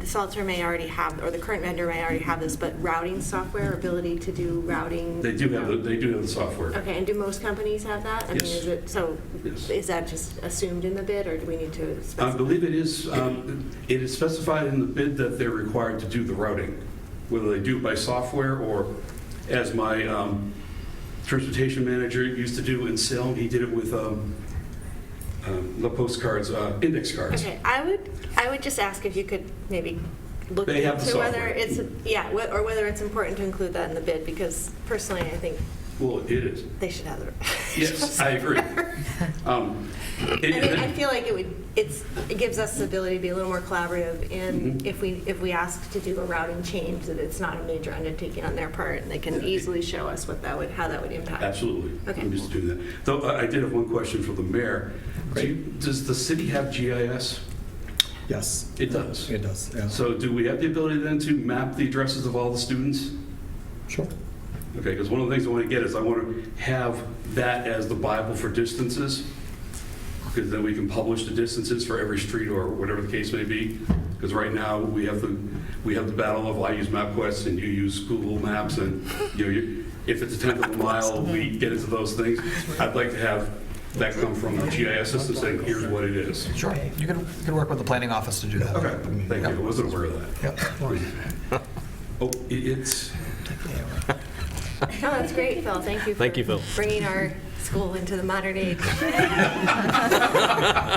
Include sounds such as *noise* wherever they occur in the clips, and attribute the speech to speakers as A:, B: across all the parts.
A: the Salter may already have, or the current vendor may already have this, but routing software, ability to do routing?
B: They do have, the- they do have the software.
A: Okay, and do most companies have that? I mean,
B: Yes.
A: is it- So
B: Yes.
A: is that just assumed in the bid, or do we need to
B: I
A: specify?
B: believe it is, um, it is specified in the bid that they're required to do the routing, whether they do it by software or as my um, transportation manager used to do in Salem, he did it with um, um, the postcards, uh, index cards.
A: Okay, I would, I would just ask if you could maybe look
B: They have the
A: into whether
B: software.
A: it's, yeah, wh- or whether it's important to include that in the bid, because personally, I think
B: Well, it is.
A: they should have the.
B: Yes, I
A: *laughs*
B: agree. Um,
A: I
B: it-
A: mean, I feel like it would, it's, it gives us the ability to be a little more collaborative in
B: Mhm.
A: if we, if we ask to do a routing change, that it's not a major undertaking on their part, and they can easily show us what that would, how that would impact.
B: Absolutely.
A: Okay.
B: I'm just doing that. Though I I did have one question for the mayor. Do you- Does the city have GIS?
C: Yes,
B: It does.
C: it does. Yeah.
B: So do we have the ability then to map the addresses of all the students?
C: Sure.
B: Okay, because one of the things I want to get is I want to have that as the Bible for distances, because then we can publish the distances for every street or whatever the case may be. Because right now, we have the, we have the battle of I use MapQuest and you use Google Maps, and, you know, you- if it's a tenth of a mile, we get into those things. I'd like to have that come from the GIS system saying, here's what it is.
D: Sure, you can, you can work with the planning office to do that.
B: Okay, thank you, I wasn't aware of that. Oh, i- it's,
A: No, that's great, Phil, thank you.
E: Thank you,
A: for
E: Phil.
A: Bringing our school into the modern age.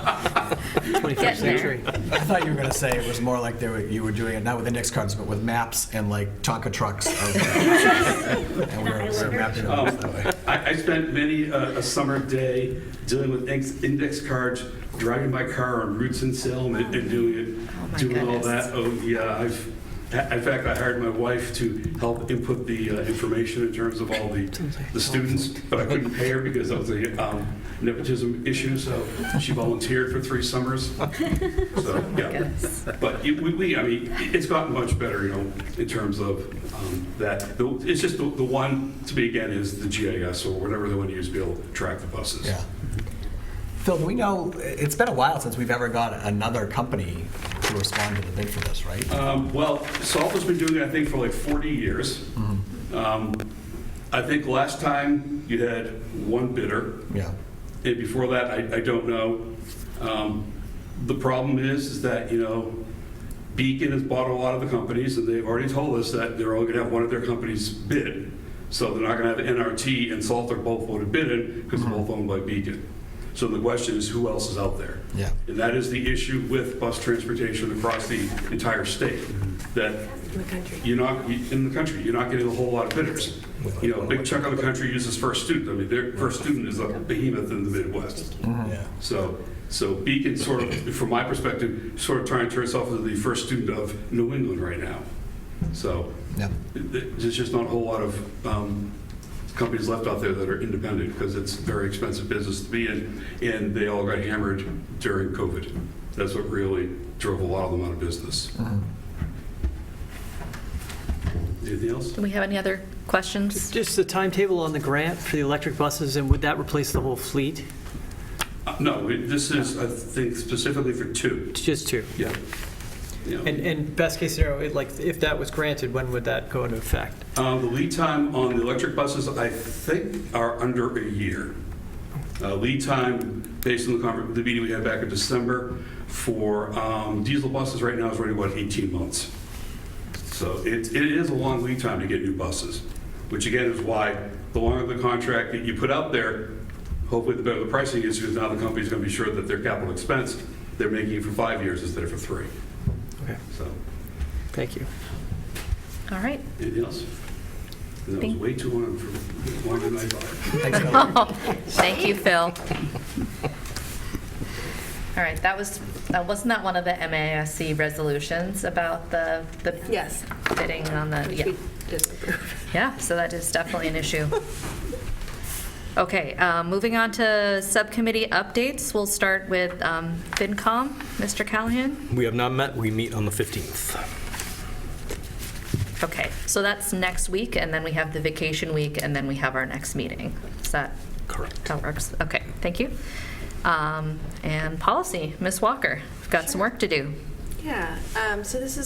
E: 21st century.
D: I thought you were going to say it was more like they were, you were doing it not with index cards, but with maps and like Tonka
C: *laughs*
D: trucks. of- And we we're we we're mapping it out that way.
B: Um, I, I spent many uh, a summer day dealing with ex- index cards, driving my car on routes in Salem and, and doing
F: Oh,
B: it,
F: my
B: doing all
F: goodness.
B: that. Oh, yeah, I've, a- in fact, I hired my wife to help input the uh, information in terms of all the, the students, but I couldn't pay her because of the um, nepotism issue, so she volunteered for three
F: *laughs*
B: summers. So, yeah.
F: Oh, Goodness.
B: But you- we, we, I mean, it's gotten much better, you know, in terms of um, that. The- It's just the the one, to me again, is the GIS or whatever they want to use to be able to track the buses.
D: Yeah. Phil, do we know, it's been a while since we've ever got another company to respond to the bid for this, right?
B: Um, Well, Salter's been doing it, I think, for like 40 years. Um, I think last time you had one bidder,
D: Yeah.
B: and before that, I I don't know. Um, The problem is, is that, you know, Beacon has bought a lot of the companies, and they've already told us that they're only going to have one of their companies bid. So they're not going to have NRT and Salter both would have bid because they're both owned by Beacon. So the question is, who else is out there?
D: Yeah.
B: And that is the issue with bus transportation across the entire state, that
A: In the country.
B: you're not, you- in the country, you're not getting a whole lot of bidders. You know, a big chunk of the country uses First Student. I mean, their First Student is a behemoth in the Midwest.
C: Yeah.
D: Mm-hmm.
B: So, so Beacon sort of, from my perspective, sort of trying to turn itself into the First Student of New England right now. So
D: Yeah.
B: th- th- there's just not a whole lot of um, companies left out there that are independent because it's a very expensive business to be in, and they all got hammered during COVID. That's what really drove a lot of them out of business.
D: Mm-hmm.
B: Anything else?
F: Do we have any other questions?
E: Just the timetable on the grant for the electric buses, and would that replace the whole fleet?
B: Uh, No, it- this is, I think, specifically for two.
E: Just two?
B: Yeah. Yeah.
G: And, and best case scenario, it, like, if that was granted, when would that go into effect?
B: Um, The lead time on the electric buses, I think, are under a year. Uh, Lead time, based on the conver- the meeting we had back in December, for um, diesel buses right now is running about 18 months. So it it is a long lead time to get new buses, which again is why the longer the contract that you put out there, hopefully the better the pricing is, because now the company's going to be sure that their capital expense, they're making it for five years instead of for three.
G: Okay.
B: So,
G: Thank you.
F: All right.
B: anything else? That was
F: Thank-
B: way too long for, longer than I thought.
D: Thanks, Phil.
F: Thank
A: *laughs*
F: you, Phil. All right, that was, uh, wasn't that one of the MASC resolutions about the, the
A: Yes.
F: bidding on the,
A: Which
F: yeah.
A: we disapprove.
F: Yeah, so that is definitely
A: *laughs*
F: an issue. Okay, uh, moving on to subcommittee updates. We'll start with um, FinCom, Mr. Callahan.
E: We have not met. We meet on the 15th.
F: Okay, so that's next week, and then we have the vacation week, and then we have our next meeting. Is that
E: Correct.
F: how it works? Okay, thank you. Um, And policy, Ms. Walker, we've got some work to do.
A: Yeah, um, so this is